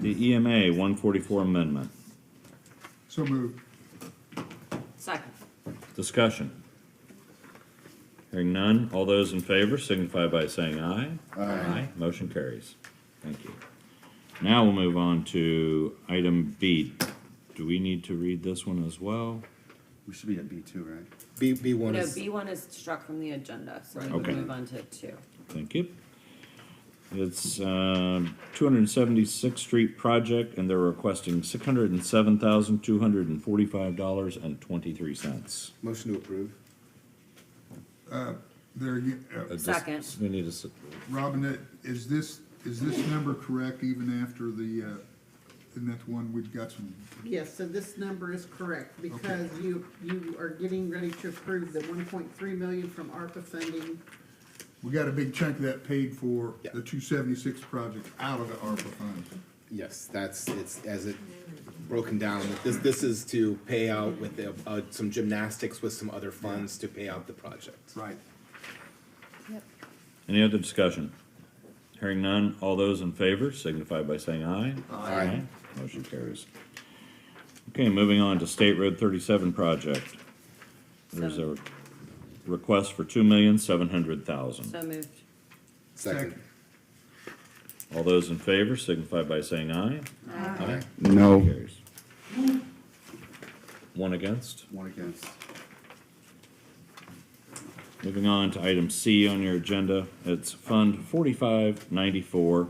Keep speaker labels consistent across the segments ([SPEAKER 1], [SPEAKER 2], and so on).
[SPEAKER 1] The EMA one forty-four amendment,
[SPEAKER 2] So moved.
[SPEAKER 3] Second.
[SPEAKER 1] discussion. Hearing none, all those in favor signify by saying aye. Aye. Motion carries. Thank you. Now we'll move on to item B. Do we need to read this one as well?
[SPEAKER 4] We should be at B two, right?
[SPEAKER 5] B, B one
[SPEAKER 3] No,
[SPEAKER 5] is,
[SPEAKER 3] B one is struck from the agenda, so we
[SPEAKER 1] Okay.
[SPEAKER 3] can move on to two.
[SPEAKER 1] Thank you. It's um, 276th Street project, and they're requesting $607,245.23.
[SPEAKER 5] motion to approve.
[SPEAKER 2] There, you-
[SPEAKER 1] Uh,
[SPEAKER 2] uh,
[SPEAKER 1] just-
[SPEAKER 3] Second.
[SPEAKER 1] We need a, s-
[SPEAKER 2] Robin, that- is this, is this number correct even after the, uh, and that's one we've got some,
[SPEAKER 6] Yes, so this number is correct, because you, you are getting ready to approve the one point three million from ARPA funding.
[SPEAKER 2] we got a big chunk of that paid for
[SPEAKER 5] Yeah.
[SPEAKER 2] the two seventy-six project out of the ARPA fund.
[SPEAKER 5] Yes, that's, it's, as it broken down, this, this is to pay out with the, uh, some gymnastics with some other funds to pay out the project.
[SPEAKER 2] Right.
[SPEAKER 1] any other discussion? Hearing none, all those in favor signify by saying aye.
[SPEAKER 5] Aye.
[SPEAKER 1] Motion carries. Okay, moving on to State Road 37 project. There's a request for $2,700,000.
[SPEAKER 3] So moved.
[SPEAKER 5] Second.
[SPEAKER 1] All those in favor signify by saying aye. Aye.
[SPEAKER 4] No.
[SPEAKER 1] Carries. One against.
[SPEAKER 4] One against.
[SPEAKER 1] Moving on to item C on your agenda, it's Fund forty-five ninety-four.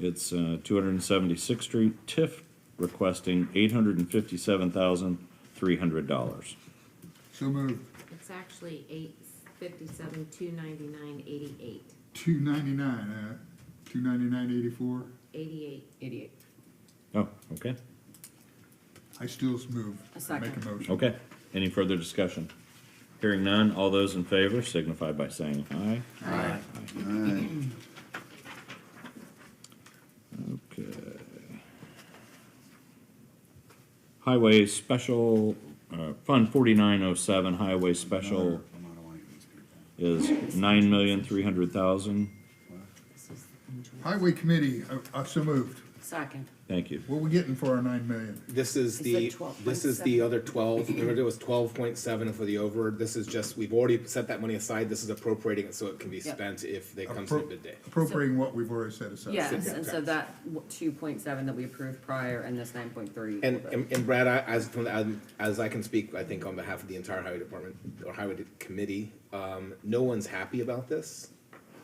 [SPEAKER 1] It's, uh, two hundred and seventy-sixth Street, TIF requesting eight hundred and fifty-seven thousand, three hundred dollars.
[SPEAKER 2] So moved.
[SPEAKER 7] It's actually eight fifty-seven, two ninety-nine, eighty-eight,
[SPEAKER 2] Two ninety-nine, uh, two ninety-nine eighty-four.
[SPEAKER 7] eighty-eight.
[SPEAKER 3] Idiot.
[SPEAKER 1] Oh, okay,
[SPEAKER 2] I still s- move.
[SPEAKER 3] A second.
[SPEAKER 2] Make a motion.
[SPEAKER 1] okay. Any further discussion? Hearing none, all those in favor signify by saying aye.
[SPEAKER 5] Aye.
[SPEAKER 4] Alright,
[SPEAKER 1] Okay. Highway Special, uh, Fund forty-nine oh seven, Highway Special
[SPEAKER 4] I'm out of line with these people.
[SPEAKER 1] is nine million, three hundred thousand.
[SPEAKER 7] This is enjoy-
[SPEAKER 2] Highway committee, I, I so moved.
[SPEAKER 3] Second.
[SPEAKER 1] Thank you.
[SPEAKER 2] What we getting for our nine million?
[SPEAKER 5] This is
[SPEAKER 3] Is
[SPEAKER 5] the,
[SPEAKER 3] it 12.7?
[SPEAKER 5] this is the other twelve, remember there was twelve point seven for the over, this is just, we've already set that money aside, this is appropriating it so it can be
[SPEAKER 3] Yep.
[SPEAKER 5] spent if they come to the
[SPEAKER 2] Appro-
[SPEAKER 5] bid day.
[SPEAKER 2] Appropriating what we've already set
[SPEAKER 4] Oh,
[SPEAKER 2] aside.
[SPEAKER 3] Yes,
[SPEAKER 5] Yeah.
[SPEAKER 3] and so that two point seven that we approved prior and this nine point three.
[SPEAKER 5] And, and and Brad, I, as, from the- um, as I can speak, I think on behalf of the entire highway department or highway de- committee, um, no one's happy about this.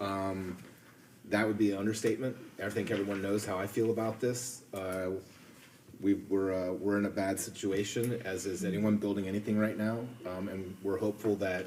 [SPEAKER 5] Um, that would be an understatement. I think everyone knows how I feel about this. Uh, we, we're, uh, we're in a bad situation, as is anyone building anything right now. Um, and we're hopeful that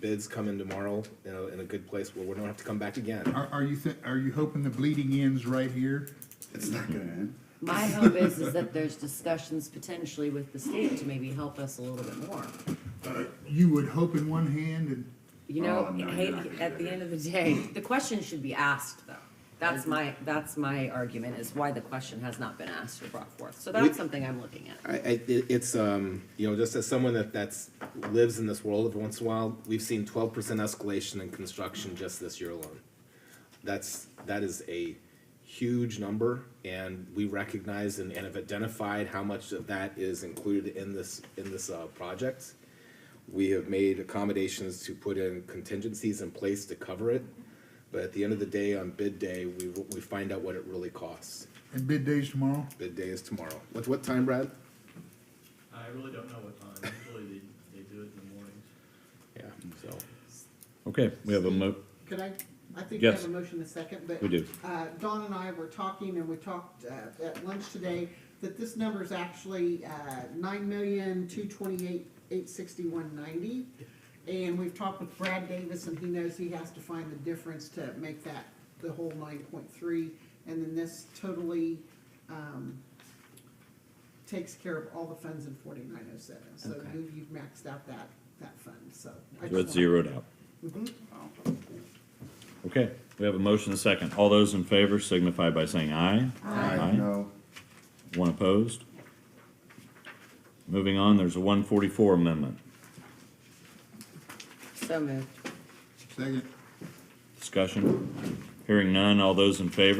[SPEAKER 5] bids come in tomorrow, you know, in a good place where we don't have to come back again.
[SPEAKER 2] Are, are you, thi- are you hoping the bleeding ends right here?
[SPEAKER 4] It's not gonna end.
[SPEAKER 3] My hope is, is that there's discussions potentially with the state to maybe help us a little bit more.
[SPEAKER 2] You would hope in one hand and
[SPEAKER 3] You
[SPEAKER 4] Oh,
[SPEAKER 3] know,
[SPEAKER 4] no,
[SPEAKER 3] hey,
[SPEAKER 4] you're not gonna
[SPEAKER 3] at
[SPEAKER 4] do
[SPEAKER 3] the
[SPEAKER 4] that.
[SPEAKER 3] end of the day, the question should be asked though. That's my, that's my argument is why the question has not been asked or brought forth. So
[SPEAKER 5] We-
[SPEAKER 3] that's something I'm looking at.
[SPEAKER 5] I, I, it, it's, um, you know, just as someone that, that's, lives in this world every once in a while, we've seen twelve percent escalation in construction just this year alone. That's, that is a huge number, and we recognize and, and have identified how much of that is included in this, in this, uh, project. We have made accommodations to put in contingencies in place to cover it, but at the end of the day, on bid day, we, we find out what it really costs.
[SPEAKER 2] And bid days tomorrow?
[SPEAKER 5] Bid day is tomorrow. What, what time, Brad?
[SPEAKER 8] I really don't know what time, usually they, they do it in the mornings.
[SPEAKER 5] Yeah, so.
[SPEAKER 1] Okay, we have a mo,
[SPEAKER 6] Could I, I think we have
[SPEAKER 1] Yes.
[SPEAKER 6] a motion in a second, but.
[SPEAKER 1] We do.
[SPEAKER 6] Uh, Dawn and I were talking, and we talked, uh, at lunch today, that this number is actually, uh, nine million, two twenty-eight, eight sixty-one ninety. And we've talked with Brad Davis, and he knows he has to find the difference to make that the whole nine point three, and then this totally, um, takes care of all the funds in forty-nine oh seven, so
[SPEAKER 3] Okay.
[SPEAKER 6] you- you've maxed out that, that fund, so. I just
[SPEAKER 1] so it's
[SPEAKER 6] wanna-
[SPEAKER 1] zeroed out. Mm-hmm. Okay, we have a motion and a second. All those in favor signify by saying aye.
[SPEAKER 4] No,
[SPEAKER 1] One opposed? Moving on, there's a one forty-four amendment.
[SPEAKER 3] So moved.
[SPEAKER 2] Second.
[SPEAKER 1] Discussion? Hearing none, all those in favor